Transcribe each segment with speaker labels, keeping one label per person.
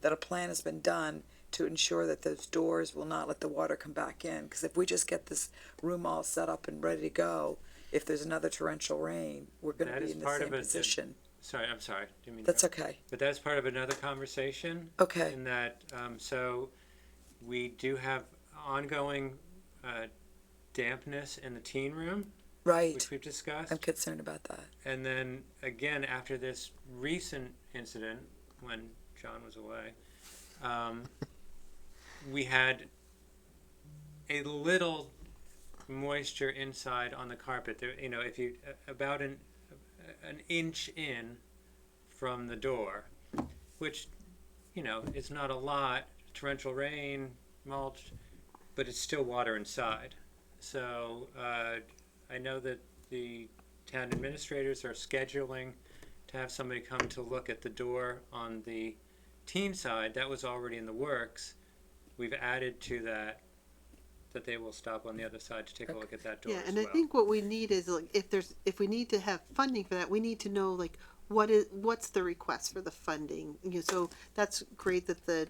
Speaker 1: that a plan has been done to ensure that those doors will not let the water come back in. Because if we just get this room all set up and ready to go, if there's another torrential rain, we're going to
Speaker 2: That
Speaker 1: be
Speaker 2: is
Speaker 1: in the
Speaker 2: part
Speaker 1: same
Speaker 2: of it that-
Speaker 1: position.
Speaker 2: Sorry, I'm sorry. Didn't mean to
Speaker 1: That's
Speaker 2: interrupt.
Speaker 1: okay.
Speaker 2: But that's part of another conversation.
Speaker 1: Okay.
Speaker 2: In that, um, so we do have ongoing uh, dampness in the teen room,
Speaker 1: Right.
Speaker 2: which we've discussed.
Speaker 1: I'm concerned about that.
Speaker 2: And then again, after this recent incident when John was away, um, we had a little moisture inside on the carpet. There, you know, if you about an an inch in from the door, which you know it's not a lot. Torrential rain, mulch, but it's still water inside. So uh, I know that the town administrators are scheduling to have somebody come to look at the door on the teen side. That was already in the works. We've added to that that they will stop on the other side to take a look at that door
Speaker 3: Yeah,
Speaker 2: as
Speaker 3: and I
Speaker 2: well.
Speaker 3: think what we need is like, if there's, if we need to have funding for that, we need to know like, what is, what's the request for the funding? You know, so that's great that the,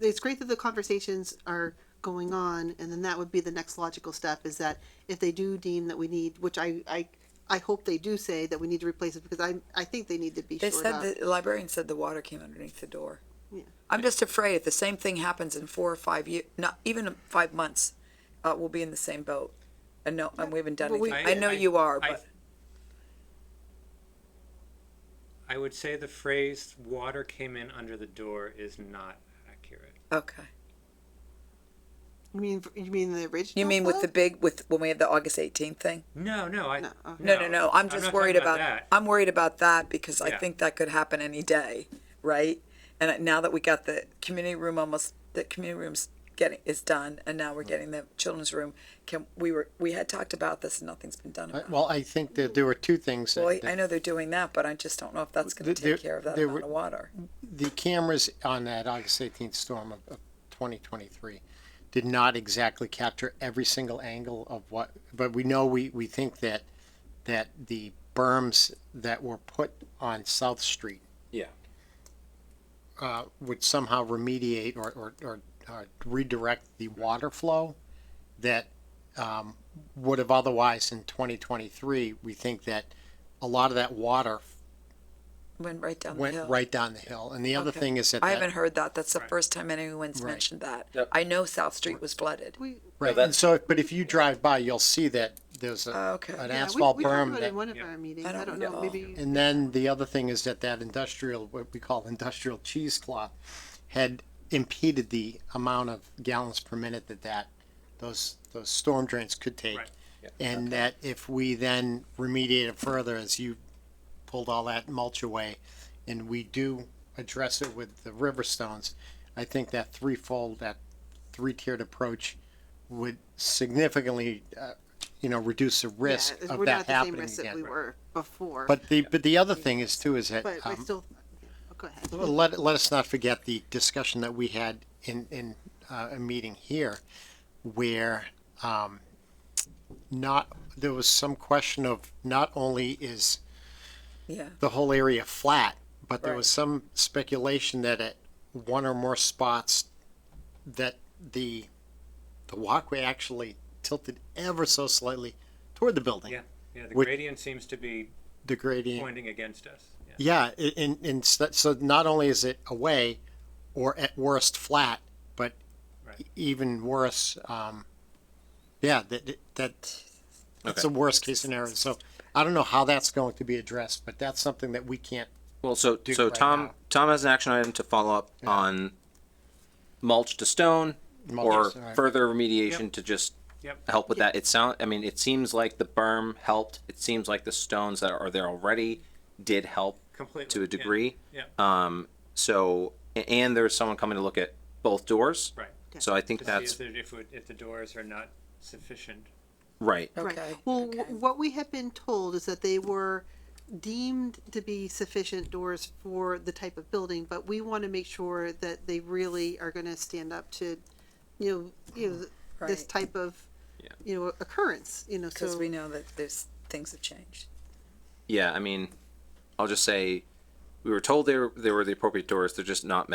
Speaker 3: it's great that the conversations are going on and then that would be the next logical step is that if they do deem that we need, which I, I, I hope they do say that we need to replace it because I, I think they need to be
Speaker 1: They
Speaker 3: shored
Speaker 1: said
Speaker 3: up.
Speaker 1: the librarian said the water came underneath the door.
Speaker 3: Yeah.
Speaker 1: I'm just afraid if the same thing happens in four or five years, not even five months, uh, we'll be in the same boat. And no, and we haven't done
Speaker 3: But we-
Speaker 1: anything. I know you are,
Speaker 2: I-
Speaker 1: but
Speaker 2: I would say the phrase "water came in under the door" is not accurate.
Speaker 1: okay.
Speaker 3: You mean, you mean the original?
Speaker 1: You mean with the
Speaker 3: book?
Speaker 1: big with when we have the August 18th thing?
Speaker 2: No, no, I
Speaker 3: No, okay.
Speaker 1: No, no, no. I'm
Speaker 2: not
Speaker 1: just
Speaker 2: talking
Speaker 1: worried about,
Speaker 2: that.
Speaker 1: I'm worried about that because I
Speaker 2: Yeah.
Speaker 1: think that could happen any day, right? And now that we got the community room almost the community room's getting is done and now we're
Speaker 2: Mm.
Speaker 1: getting the children's room. Can we were we had talked about this and nothing's been done
Speaker 4: I-
Speaker 1: about it.
Speaker 4: Well, I think that there were two things. that-
Speaker 1: Well, I-
Speaker 4: that
Speaker 1: I know they're doing that, but I just don't know if that's going to
Speaker 4: Th-
Speaker 1: take
Speaker 4: there-
Speaker 1: care of that
Speaker 4: there
Speaker 1: amount
Speaker 4: were-
Speaker 1: of water.
Speaker 4: The cameras on that August 18th storm of of 2023 did not exactly capture every single angle of what, but we know, we, we think that, that the berms that were put on South Street
Speaker 2: Yeah.
Speaker 4: uh, would somehow remediate or, or, or uh, redirect the water flow that um, would have otherwise in 2023, we think that a lot of that water
Speaker 1: Went right down the hill.
Speaker 4: went right down the hill. And the other
Speaker 1: Okay.
Speaker 4: thing is that.
Speaker 1: I
Speaker 4: that-
Speaker 1: haven't heard that. That's the
Speaker 2: Right.
Speaker 1: first time anyone's
Speaker 4: Right.
Speaker 1: mentioned that.
Speaker 5: Yep.
Speaker 1: I know South Street was flooded.
Speaker 3: We,
Speaker 4: Right, and so, but if you drive by, you'll see that there's
Speaker 1: Oh,
Speaker 4: a,
Speaker 1: okay.
Speaker 4: an
Speaker 3: yeah, we-
Speaker 4: asphalt
Speaker 3: we talked
Speaker 4: berm
Speaker 3: about it in
Speaker 4: that.
Speaker 3: one of
Speaker 2: Yeah.
Speaker 3: our meetings.
Speaker 1: I
Speaker 3: I
Speaker 1: don't
Speaker 3: don't know,
Speaker 1: recall.
Speaker 3: maybe.
Speaker 4: And then the other thing is that that industrial, what we call industrial cheesecloth, had impeded the amount of gallons per minute that that, those, those storm drains could take.
Speaker 2: Right,
Speaker 4: And that if we then remediate it further, as you pulled all that mulch away, and we do address it with the river stones, I think that threefold, that three-tiered approach would significantly, uh, you know, reduce the risk
Speaker 3: Yeah,
Speaker 4: of
Speaker 3: we're not at
Speaker 4: that
Speaker 3: the same
Speaker 4: happening
Speaker 3: risk that We
Speaker 4: again.
Speaker 3: were before, but
Speaker 4: But the, but the other thing is too, is that,
Speaker 3: I
Speaker 4: um,
Speaker 3: still, oh, go ahead.
Speaker 4: let, let us not forget the discussion that we had in, in uh, a meeting here where um, not, there was some question of not only is
Speaker 1: Yeah.
Speaker 4: the whole area flat, but there was
Speaker 1: Right.
Speaker 4: some speculation that at one or more spots that the the walkway actually tilted ever so slightly toward the building,
Speaker 2: Yeah, yeah. The
Speaker 4: Which-
Speaker 2: gradient seems to be
Speaker 4: the gradient.
Speaker 2: pointing against us. Yeah.
Speaker 4: Yeah, i- in, in, so so not only is it away, or at worst flat, but e-,
Speaker 2: Right.
Speaker 4: even worse, um, yeah, that, that, that's the worst case scenario. So I don't know how that's going to be addressed, but that's something that we can't,
Speaker 5: Well, so
Speaker 4: do
Speaker 5: so
Speaker 4: right
Speaker 5: Tom
Speaker 4: now.
Speaker 5: Tom has an action item to follow up on mulch to stone
Speaker 4: Mulch to
Speaker 5: or
Speaker 4: stone.
Speaker 5: further remediation
Speaker 2: Yep.
Speaker 5: to just
Speaker 2: Yep.
Speaker 5: help with that. It sound I mean it seems like the berm helped. It seems like the stones that are there already did help
Speaker 2: Completely.
Speaker 5: to
Speaker 2: yeah,
Speaker 5: a degree.
Speaker 2: Yeah.
Speaker 5: Um so a- and there's someone coming to look at both doors.
Speaker 2: right.
Speaker 5: So I think
Speaker 2: To
Speaker 5: that's
Speaker 2: see if, there- if, we- if the doors are not sufficient.
Speaker 5: right.
Speaker 1: Okay.
Speaker 3: Right. Well, wh-
Speaker 1: okay.
Speaker 3: what we have been told is that they were deemed to be sufficient doors for the type of building, but we want to make sure that they really are going to stand up to, you know, you know, th- this
Speaker 1: Right.
Speaker 3: type of,
Speaker 5: Yeah.
Speaker 3: you know, occurrence, you know,
Speaker 1: Because
Speaker 3: so.
Speaker 1: we know that there's things have changed.
Speaker 5: Yeah, I mean I'll just say we were told they were, they were the appropriate doors. They're just not meant